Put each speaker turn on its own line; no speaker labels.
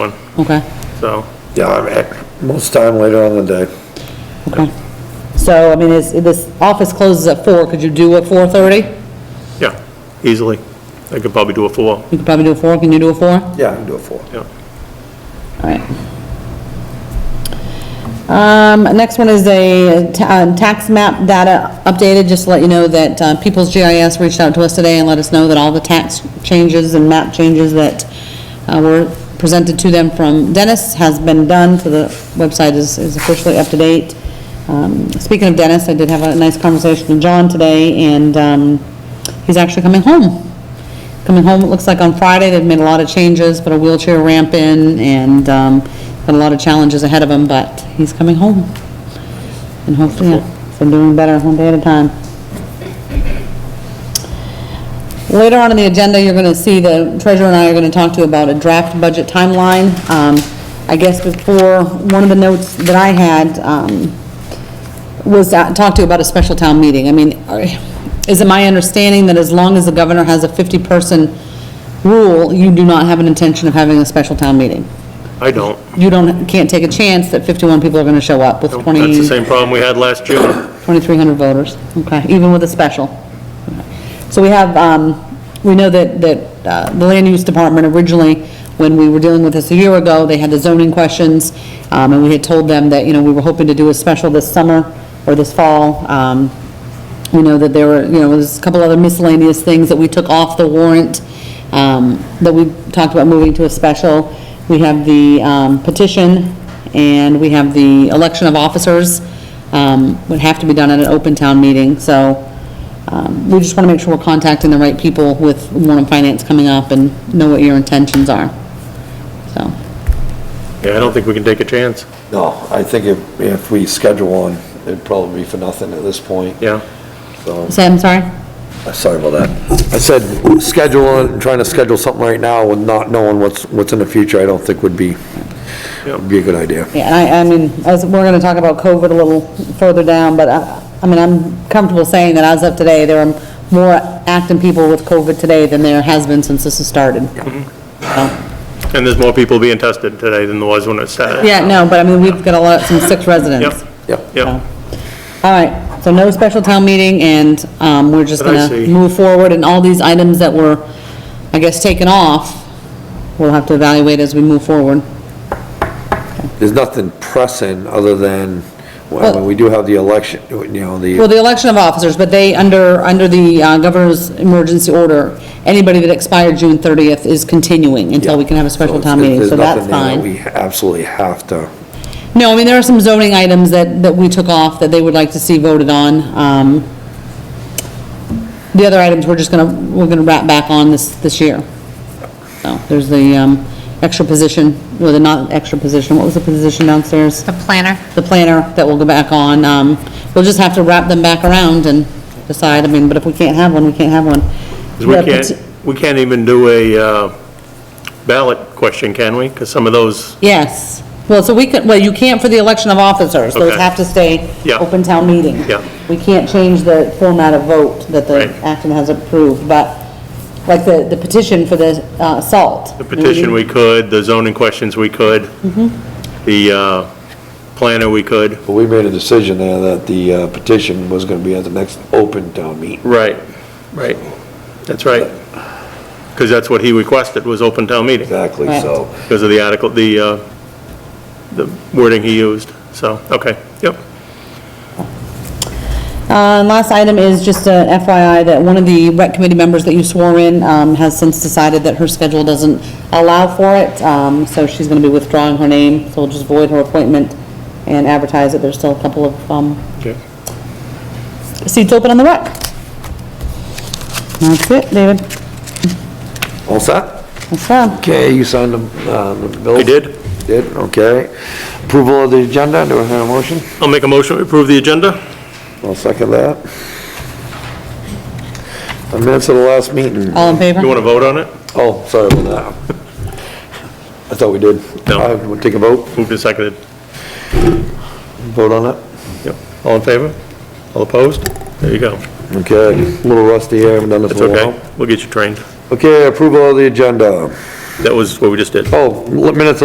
one,
Okay,
so.
Yeah, I'm at- most time later on in the day.
okay. So, I mean, is, this office closes at four, could you do at 4:30?
Yeah, easily. I could probably do a four,
You could probably do a four, can you do a four? All
Yeah, I can do it for.
yeah.
right. Um, next one is a ta- uh, tax map data updated, just to let you know that uh, People's GIS reached out to us today and let us know that all the tax changes and map changes that uh, were presented to them from Dennis has been done, so the website is is officially up to date. Um, Speaking of Dennis, I did have a nice conversation with John today, and um, he's actually coming home. coming home, it looks like on Friday, they've made a lot of changes, put a wheelchair ramp in, and, um, got a lot of challenges ahead of him, but he's coming home. And hopefully, yeah, so doing better one day at a time. Later on in the agenda, you're gonna see the treasurer and I are gonna talk to you about a draft budget timeline. Um, I guess before, one of the notes that I had, um, was that- talk to you about a special town meeting. I mean, are- is it my understanding that as long as the governor has a 50-person rule, you do not have an intention of having a special town meeting?
I don't.
You don't, can't take a chance that 51 people are going to show up with
That's
20...
the same problem we had last June.
2,300 voters, okay, even with a special. So we have, um, we know that, that uh, the land use department originally, when we were dealing with this a year ago, they had the zoning questions, um, and we had told them that, you know, we were hoping to do a special this summer or this fall. Um, We know that there were, you know, there's a couple other miscellaneous things that we took off the warrant, um, that we talked about moving to a special. We have the um, petition, and we have the election of officers um, would have to be done at an open town meeting, so um, we just want to make sure we're contacting the right people with Warren Finance coming up and know what your intentions are. So,
Yeah, I don't think we can take a chance.
No, I think if, if we schedule one, it'd probably be for nothing at this point,
Yeah,
so.
say, I'm sorry?
Sorry about that. I said, schedule one, trying to schedule something right now with not knowing what's, what's in the future, I don't think would be, would be a good idea.
Yeah, and I, I mean, as, we're gonna talk about COVID a little further down, but I, I mean, I'm comfortable saying that as of today, there are more acting people with COVID today than there has been since this has started. So-
and there's more people being tested today than there was when it started.
Yeah, no, but I mean, we've got a lot, some six residents.
Yep,
Yep.
yep.
All right, so no special town meeting, and um, we're just
But I
gonna
see.
move forward, and all these items that were, I guess, taken off, we'll have to evaluate as we move forward.
There's nothing pressing other than, well, I mean, we do have the election, you know,
Well,
the,
the election of officers, but they, under, under the uh, governor's emergency order, anybody that expired June 30th is continuing until we can have a special
So
town meeting,
there's
so that's
nothing there that
fine.
We absolutely have to,
No, I mean, there are some zoning items that, that we took off that they would like to see voted on. Um, The other items, we're just gonna, we're gonna wrap back on this, this year. So, there's the, um, extra position, or the not extra position, what was the position downstairs?
The planner.
The planner that we'll go back on, um, we'll just have to wrap them back around and decide, I mean, but if we can't have one, we can't have one.
'Cause we
The
can't,
peti-
we can't even do a uh, ballot question, can we? Because some of those,
Yes, well, so we could, well, you can't for the election of officers, those
Okay.
have to stay
Yeah.
open town meeting.
Yeah.
We can't change the format of vote that
Right.
the Acton has approved, but, like, the, the petition for the, uh, salt.
the petition we could, the zoning questions we could,
Mm-hmm.
the uh, planner we could.
but we made a decision there that the uh, petition was gonna be at the next open town meeting.
Right, right. That's right. Because that's what he requested, was open town meeting,
Exactly, so.
because of the article, the, uh, the wording he used. So, okay, yep.
Uh, and last item is just a FYI that one of the rec committee members that you swore in, um, has since decided that her schedule doesn't allow for it, um, so she's gonna be withdrawing her name, so we'll just void her appointment and advertise that there's still a couple of, um,
Okay.
seats open on the rec. That's it, David.
All set?
That's all.
Okay, you signed the, uh, the bill?
I did.
Did, okay. Approval of the agenda, do I hear a motion?
I'll make a motion to approve the agenda.
I'll second that. The minutes of the last meeting.
All in
You
favor?
want to vote on it?
Oh, sorry about that. I thought we did.
No.
All right, We'll take a vote,
Moved and seconded.
vote on it.
Yep. All in favor? All opposed? There you go.
Okay, a little rusty here, haven't done this
It's
in a
okay.
while.
We'll get you trained.
Okay, approval of the agenda.
That was what we just did.
Oh, minutes